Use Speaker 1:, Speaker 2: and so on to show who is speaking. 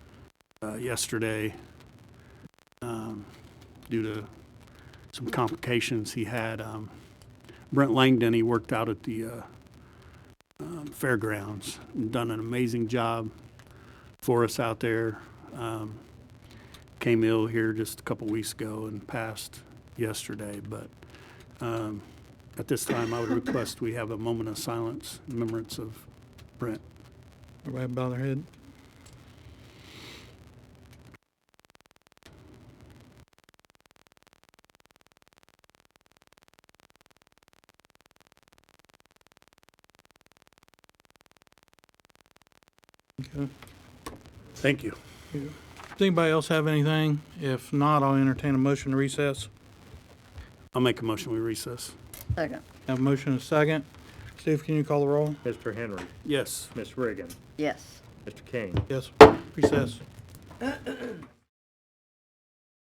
Speaker 1: uh, yesterday um, due to some complications he had. Um, Brent Langdon, he worked out at the uh, um, fairgrounds, and done an amazing job for us out there. Um, Came ill here just a couple weeks ago and passed yesterday, but um, at this time, I would request we have a moment of silence in remembrance of Brent.
Speaker 2: Everybody bow their head. Okay.
Speaker 1: Thank you.
Speaker 2: Does anybody else have anything? If not, I'll entertain a motion to recess.
Speaker 1: I'll make a motion, we recess.
Speaker 3: Second,
Speaker 2: Have a motion and a second. Steve, can you call the roll?
Speaker 4: Mr. Henry,
Speaker 1: Yes.
Speaker 4: Miss Reagan,
Speaker 3: yes.
Speaker 4: Mr. King.
Speaker 2: Yes, recess.